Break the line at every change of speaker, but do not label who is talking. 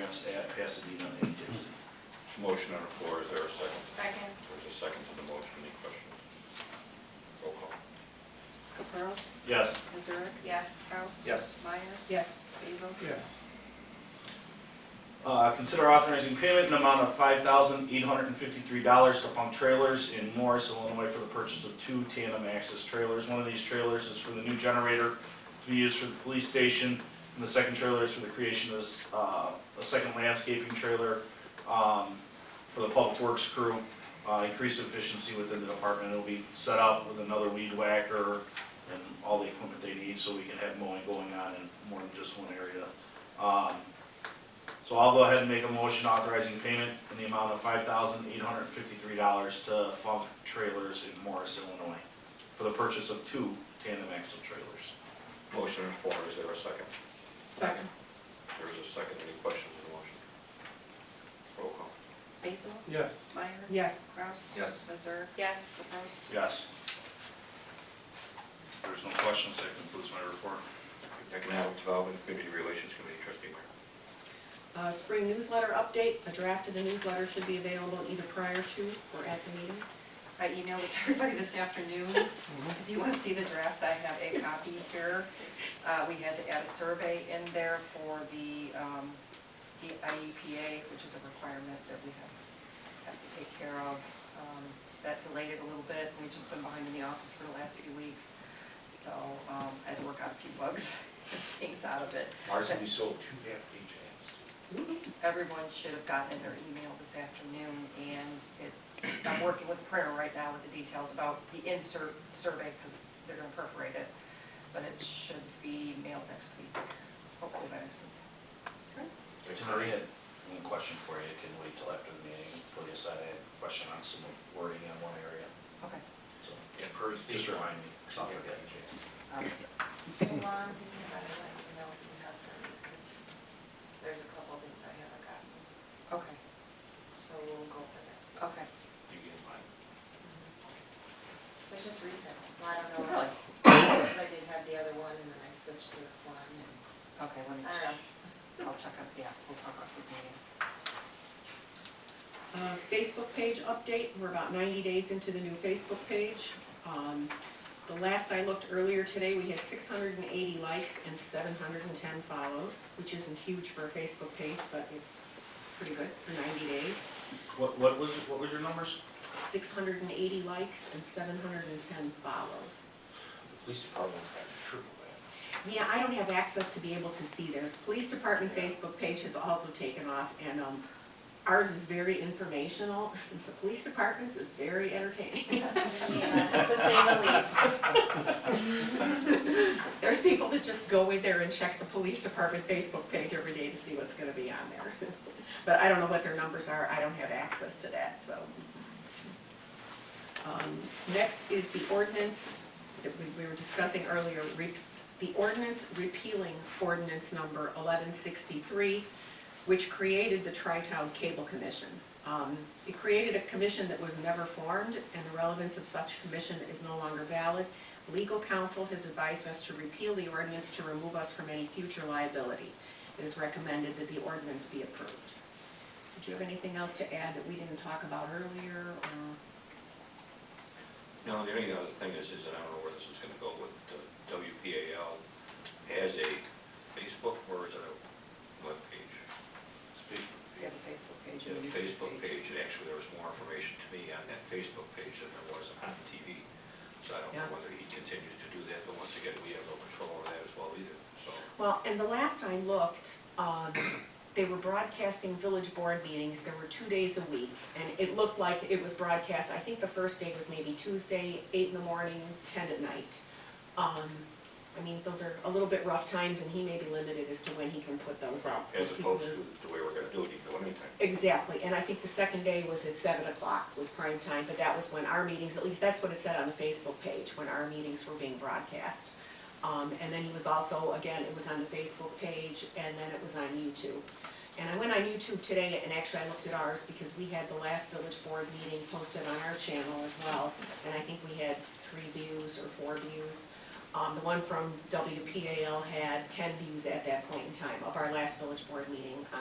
has to be done agency.
Motion on the floor, is there a second?
Second.
There's a second to the motion, any questions? Roll call.
Caprows?
Yes.
Missouri?
Yes.
Kraus?
Yes.
Meyer?
Yes.
Basil?
yes,
Uh, Consider authorizing payment in the amount of five thousand eight hundred and fifty-three dollars to Funk Trailers in Morris, Illinois for the purchase of two tandem access trailers. One of these trailers is for the new generator to be used for the police station, and the second trailer is for the creation of this, uh, a second landscaping trailer um, for the public works crew. Uh, Increase efficiency within the department, it'll be set up with another weed whacker and all the equipment they need, so we can have mowing going on in more than just one area. Um, so I'll go ahead and make a motion authorizing payment in the amount of five thousand eight hundred fifty-three dollars to Funk Trailers in Morris, Illinois, for the purchase of two tandem axle trailers.
Motion on the floor, is there a second?
Second.
There is a second, any questions on the motion? Roll call.
Basil?
yes.
Meyer?
Yes.
Kraus?
Yes.
Missouri?
Yes.
Caprows?
Yes. If There's no questions, that concludes my report.
Economic Development Community Relations Committee, trustee Meyer.
Uh, Spring newsletter update, a draft of the newsletter should be available either prior to or at the meeting.
I emailed it to everybody this afternoon. If you want to see the draft, I have a copy here. Uh, We had to add a survey in there for the um, the IEPA, which is a requirement that we have, have to take care of. Um, That delayed it a little bit, we've just been behind in the office for the last few weeks. So um, I had to work out a few bugs, things out of it.
Ours,
will
we sold two half-page ads.
everyone should have gotten in their email this afternoon, and it's, I'm working with the printer right now with the details about the insert survey, because they're gonna perforate it, but it should be mailed next week, hopefully by next week.
Tony, I had one question for you, can wait till after the meeting, put aside a question on some wording in one area,
Okay.
so
Yeah, per state.
just remind me, because I'll forget.
um,
Well, I'm thinking about it, let me know if you have them, because there's a couple of things I haven't gotten,
Okay,
so we'll go for that too.
okay.
You get mine.
It's just recent, so I don't know.
Really?
Because I did have the other one, and then I switched to this one, and
Okay, let me
I don't know.
check, I'll check on, yeah, we'll talk about the meeting.
Uh, Facebook page update, we're about ninety days into the new Facebook page. Um, The last I looked earlier today, we had six hundred and eighty likes and seven hundred and ten follows, which isn't huge for a Facebook page, but it's pretty good for ninety days.
What, what was, what was your numbers?
Six hundred and eighty likes and seven hundred and ten follows.
The police department's got triple that.
Yeah, I don't have access to be able to see theirs. Police Department Facebook page has also taken off, and um, ours is very informational. The police department's is very entertaining.
Yes, to say the least.
There's people that just go in there and check the police department Facebook page every day to see what's gonna be on there. But I don't know what their numbers are, I don't have access to that, so. Um, next is the ordinance that we, we were discussing earlier, re, the ordinance repealing ordinance number eleven sixty-three, which created the Tri-Town Cable Commission. Um, it created a commission that was never formed, and the relevance of such commission is no longer valid. Legal counsel has advised us to repeal the ordinance to remove us from any future liability. It is recommended that the ordinance be approved. Did you have anything else to add that we didn't talk about earlier, or?
No, the only other thing is, is, and I don't know where this is gonna go, with the WPAL has a Facebook, or is it a webpage?
It's Facebook.
We have a Facebook page.
Yeah,
and a YouTube
Facebook page, and actually there was more information to me on that Facebook page than there was on TV. So I don't
Yeah.
know whether he continues to do that, but once again, we have no control over that as well either, so.
Well, and the last I looked, um, they were broadcasting village board meetings, there were two days a week, and it looked like it was broadcast, I think the first day was maybe Tuesday, eight in the morning, ten at night. Um, I mean, those are a little bit rough times, and he may be limited as to when he can put those up.
As
People
opposed
that-
to the way we're gonna do it, you can do anything.
Exactly, and I think the second day was at seven o'clock was prime time, but that was when our meetings, at least that's what it said on the Facebook page, when our meetings were being broadcast. Um, and then he was also, again, it was on the Facebook page, and then it was on YouTube. And I went on YouTube today, and actually I looked at ours, because we had the last village board meeting posted on our channel as well, and I think we had three views or four views. Um, the one from WPAL had ten views at that point in time of our last village board meeting on